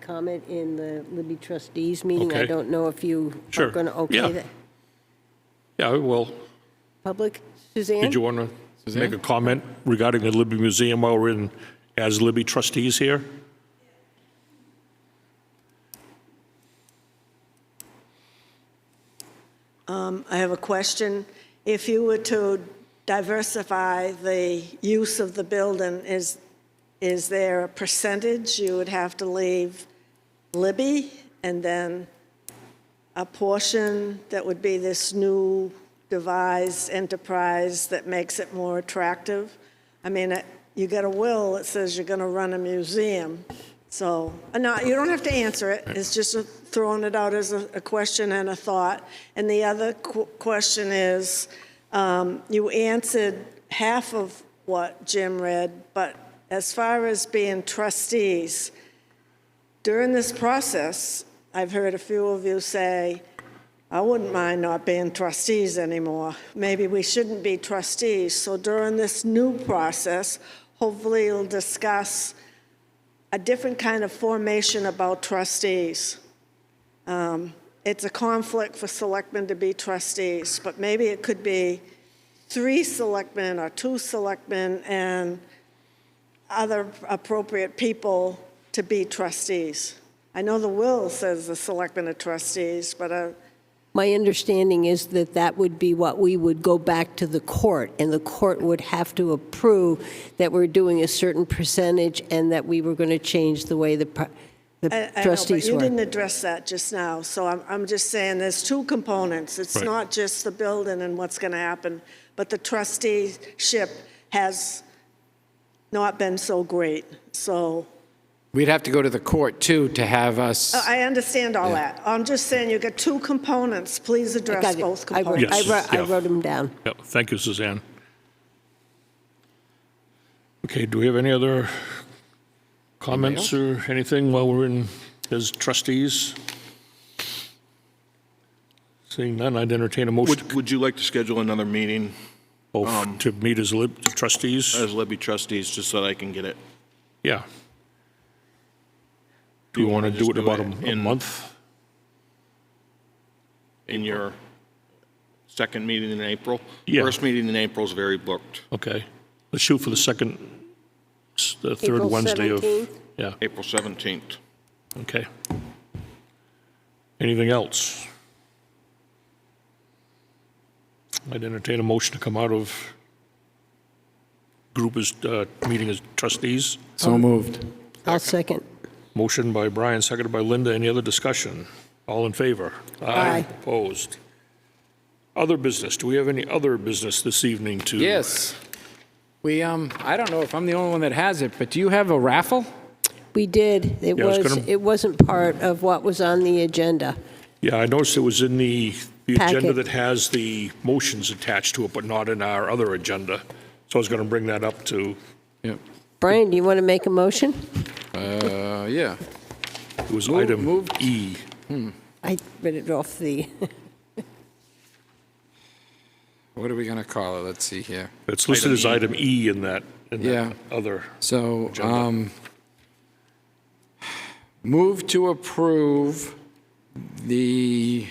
comment in the Libby trustees meeting. I Okay. don't know if you are Sure. going to Yeah. okay that. Yeah, well, Public, Suzanne? did you want to make a comment regarding the Libby Museum while we're in, as Libby trustees here? I have a question. If you were to diversify the use of the building, is, is there a percentage you would have to leave Libby and then a portion that would be this new devised enterprise that makes it more attractive? I mean, it- you got a will that says you're going to run a museum, so, uh, no, you don't have to answer it. It's just a- throwing it out as a a question and a thought. And the other qu- question is, um, you answered half of what Jim read, but as far as being trustees, during this process, I've heard a few of you say, I wouldn't mind not being trustees anymore. Maybe we shouldn't be trustees. So during this new process, hopefully you'll discuss a different kind of formation about trustees. Um, It's a conflict for selectmen to be trustees, but maybe it could be three selectmen or two selectmen and other appropriate people to be trustees. I know the will says the selectmen are trustees, but uh, My understanding is that that would be what we would go back to the court, and the court would have to approve that we're doing a certain percentage and that we were going to change the way the pr- I- the I know, trustees But you didn't were. address that just now, so I'm, I'm just saying, there's two components. It's Right. not just the building and what's going to happen, but the trusteeship has not been so great. So uh, We'd have to go to the court, too, to have us, Oh, I understand all that. I'm just saying, you got two components, please I address got it. both I wrote- components. I Yes, wrote- I yeah. wrote them down. Yeah, thank you, Suzanne. Okay, do we have any other comments or anything while we're in, as trustees? Seeing none, I'd entertain a motion Would, would you like to schedule another meeting of- to meet as lib- trustees. as Libby trustees, just so that I can get it? Yeah. Do you want to do just it in do about it a- a in- month? in your second meeting in April? Yeah. First meeting in April is very booked, Okay. Let's shoot for the second, s- the third April Wednesday of. 17th? Yeah, April 17th. okay. Anything else? I'd entertain a motion to come out of group as, uh, meeting as trustees. so moved. I'll second. Motion by Brian, seconded by Linda. Any other discussion? All in favor? Aye. Opposed? Other business. Do we have any other business this evening to? Yes. We, um, I don't know if I'm the only one that has it, but do you have a raffle? We did. It Yeah, I was was, gonna- it wasn't part of what was on the agenda. Yeah, I noticed it was in the, the agenda Packet. that has the motions attached to it, but not in our other agenda. So I was going to bring that up to, Yep. Brian, do you want to make a motion? Uh, yeah. it was Move- item move- E. I read it off the, What are we going to call it? Let's see here. It's listed as item E in that, in Yeah. that other. So, Agenda. um, move to approve the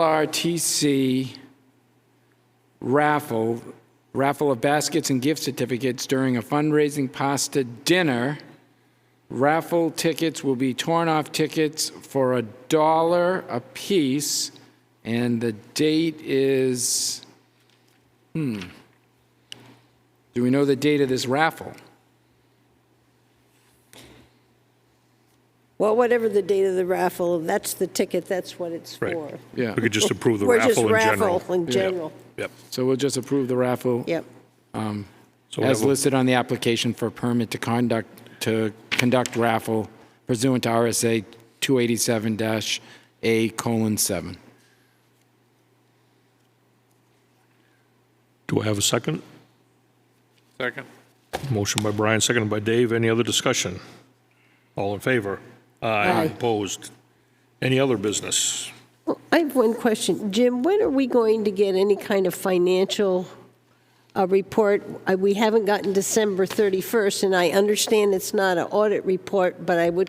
LRTC raffle, raffle of baskets and gift certificates during a fundraising pasta dinner. Raffle tickets will be torn off tickets for a dollar apiece, and the date is, do we know the date of this raffle? well, whatever the date of the raffle, that's the ticket, that's what it's Right. for. Yeah. We could just approve the We're just raffle in general. raffle in general. Yep. So we'll just approve the raffle Yep. So we as have a- listed on the application for permit to conduct, to conduct raffle pursuant to RSA 287-A colon 7. Do I have a second? Second. Motion by Brian, seconded by Dave. Any other discussion? All in favor? Aye. Opposed? Any other business? Well, I have one question. Jim, when are we going to get any kind of financial a report. Uh, We haven't gotten December 31st, and I understand it's not an audit report, but I would